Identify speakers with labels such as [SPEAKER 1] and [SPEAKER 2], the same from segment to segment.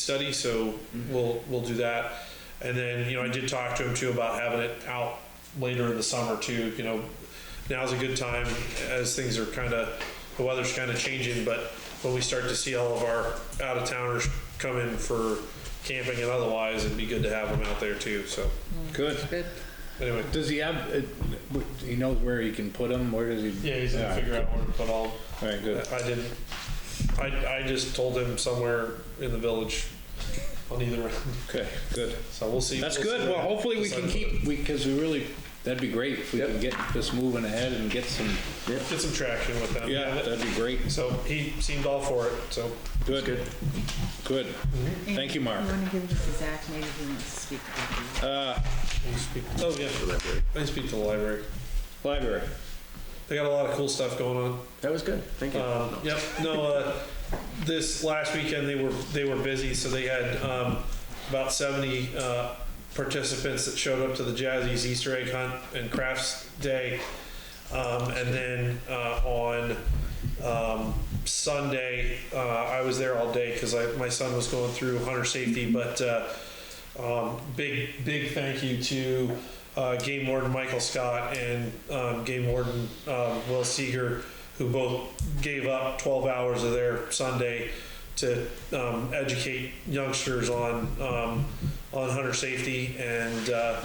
[SPEAKER 1] study, so
[SPEAKER 2] Mm-hmm.
[SPEAKER 1] we'll, we'll do that. And then, you know, I did talk to him too about having it out later in the summer too, you know. Now's a good time as things are kind of, the weather's kind of changing, but when we start to see all of our out-of-towners come in for camping and otherwise, it'd be good to have them out there too, so.
[SPEAKER 2] Mm-hmm. Good.
[SPEAKER 1] Anyway,
[SPEAKER 2] Does he have, uh, w- he knows where he can put them, where does he?
[SPEAKER 1] yeah, he's gonna figure out where to put all,
[SPEAKER 2] All right, good.
[SPEAKER 1] I didn't, I, I just told him somewhere in the village on either end,
[SPEAKER 2] Okay, good.
[SPEAKER 1] so we'll see.
[SPEAKER 2] That's
[SPEAKER 1] we'll see
[SPEAKER 2] good.
[SPEAKER 1] what
[SPEAKER 2] Well, hopefully we can
[SPEAKER 1] decides.
[SPEAKER 2] keep, because we really, that'd be great if we can get this moving ahead and get some,
[SPEAKER 1] Get some traction with them.
[SPEAKER 2] yeah, that'd be great.
[SPEAKER 1] So he seemed all for it, so.
[SPEAKER 2] Good. Good. Thank you, Mark.
[SPEAKER 3] You wanna give this to Zach, maybe he wants to speak about it.
[SPEAKER 1] I speak- Oh, yeah, I speak to the library.
[SPEAKER 2] Library.
[SPEAKER 1] They got a lot of cool stuff going on.
[SPEAKER 4] That was good, thank you.
[SPEAKER 1] Um, Yep, no, uh, this last weekend, they were, they were busy, so they had um, about 70 uh, participants that showed up to the Jazzy's Easter egg hunt and crafts day. Um, And then uh, on um, Sunday, uh, I was there all day because I, my son was going through hunter safety, but uh, um, big, big thank you to uh, Game Warden Michael Scott and um, Game Warden um, Will Seeger, who both gave up 12 hours of their Sunday to um, educate youngsters on um, on hunter safety. And uh,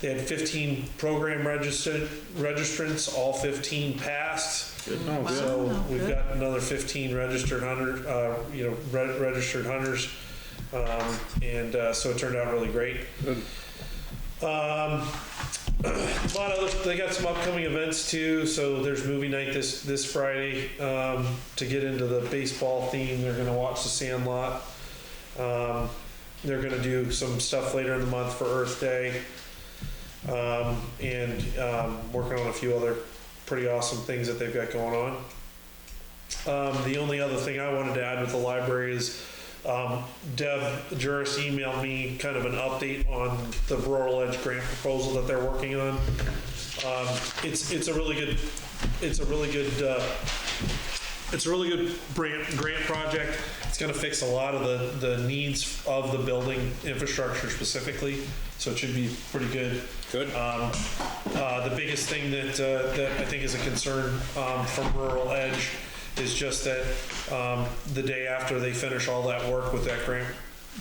[SPEAKER 1] they had 15 program registered registrants, all 15 passed.
[SPEAKER 2] Oh, good.
[SPEAKER 1] So
[SPEAKER 3] Wow,
[SPEAKER 1] we've
[SPEAKER 3] good.
[SPEAKER 1] got another 15 registered hunter, uh, you know, re- registered hunters. Um, and uh, so it turned out really great.
[SPEAKER 2] Good.
[SPEAKER 1] Um, a lot of they got some upcoming events too. So there's movie night this this Friday. Um, to get into the baseball theme, they're going to watch The Sandlot. Um, they're going to do some stuff later in the month for Earth Day, um, and um, working on a few other pretty awesome things that they've got going on. Um, the only other thing I wanted to add with the library is um, Deb Juris emailed me kind of an update on the Rural Edge grant proposal that they're working on. Um, it's it's a really good it's a really good uh, it's a really good grant grant project. It's going to fix a lot of the the needs of the building infrastructure specifically, so it should be pretty good.
[SPEAKER 2] Good.
[SPEAKER 1] Um, uh, The biggest thing that, uh, that I think is a concern um, from Rural Edge is just that um, the day after they finish all that work with that grant,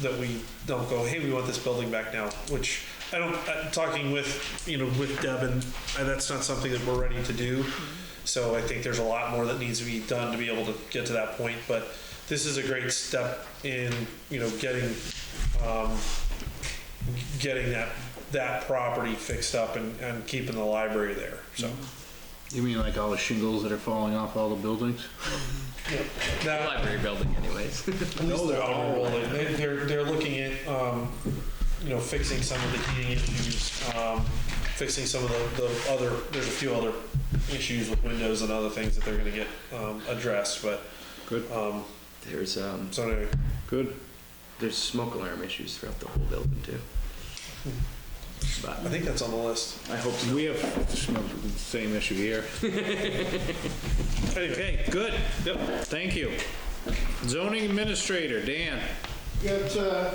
[SPEAKER 1] that we don't go, hey, we want this building back now, which I don't, i talking with, you know, with Deb and and that's not something that we're ready to do. So I think there's a lot more that needs to be done to be able to get to that point, but this is a great step in, you know, getting um, getting that, that property fixed up and, and keeping the library there, so.
[SPEAKER 2] You mean like all the shingles that are falling off all the buildings?
[SPEAKER 4] The
[SPEAKER 1] That,
[SPEAKER 4] Library building anyways.
[SPEAKER 1] at least they're all rolling, they, they're, they're looking at, um, you know, fixing some of the heating issues, um, fixing some of the, the other, there's a few other issues with windows and other things that they're gonna get, um, addressed, but,
[SPEAKER 2] Good,
[SPEAKER 1] um,
[SPEAKER 4] There's, um,
[SPEAKER 1] so anyway.
[SPEAKER 2] good.
[SPEAKER 4] there's smoke alarm issues throughout the whole building too.
[SPEAKER 1] I
[SPEAKER 4] But
[SPEAKER 1] think that's on the list.
[SPEAKER 4] I hope so.
[SPEAKER 2] We have the same issue here.
[SPEAKER 1] Anyway.
[SPEAKER 2] Okay, good. Yep. Thank you. Zoning administrator, Dan.
[SPEAKER 5] Got uh,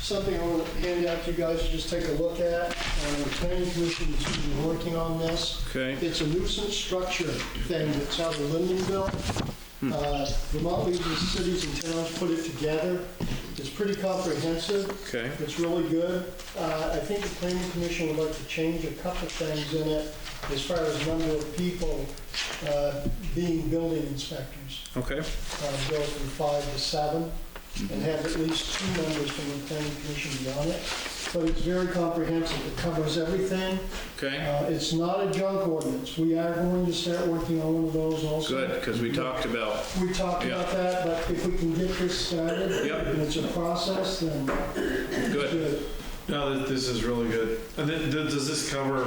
[SPEAKER 5] something I want to hand out to you guys to just take a look at. Uh, The planning commission is been working on this.
[SPEAKER 2] Okay.
[SPEAKER 5] It's a nuisance structure thing that's out of Lindenville. Uh, Vermont leaves the cities and towns put it together. It's pretty comprehensive.
[SPEAKER 2] Okay.
[SPEAKER 5] It's really good. Uh, I think the planning commission would like to change a couple things in it as far as number of people uh, being building inspectors
[SPEAKER 2] Okay.
[SPEAKER 5] uh, go from five to seven, and have at least two members from the planning commission be on it. But it's very comprehensive, it covers everything.
[SPEAKER 2] Okay.
[SPEAKER 5] Uh, It's not a junk ordinance, we are going to start working on one of those also.
[SPEAKER 2] Good, because we talked about,
[SPEAKER 5] We talked about that, but if we can get this started,
[SPEAKER 2] Yep.
[SPEAKER 5] and it's a process, then
[SPEAKER 2] good.
[SPEAKER 5] good.
[SPEAKER 1] No, th- this is really good. And then, th- does this cover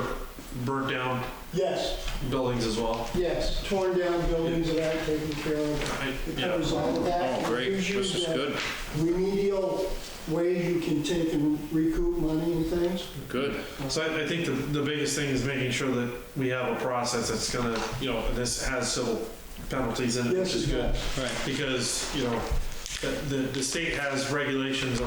[SPEAKER 1] burnt down
[SPEAKER 5] Yes,
[SPEAKER 1] buildings as well?
[SPEAKER 5] yes, torn down buildings that aren't taken care of,
[SPEAKER 1] I-
[SPEAKER 5] it
[SPEAKER 1] yeah.
[SPEAKER 5] covers all of that.
[SPEAKER 2] Oh, great. This is
[SPEAKER 5] Usually, uh,
[SPEAKER 2] good,
[SPEAKER 5] Remedial way you can take and recoup money and things.
[SPEAKER 2] good.
[SPEAKER 1] So I, I think the, the biggest thing is making sure that we have a process that's gonna, you know, this has civil penalties in it, which
[SPEAKER 5] Yes,
[SPEAKER 1] is
[SPEAKER 5] it
[SPEAKER 1] good.
[SPEAKER 5] does.
[SPEAKER 2] Right.
[SPEAKER 1] Because, you know, the- the, the state has regulations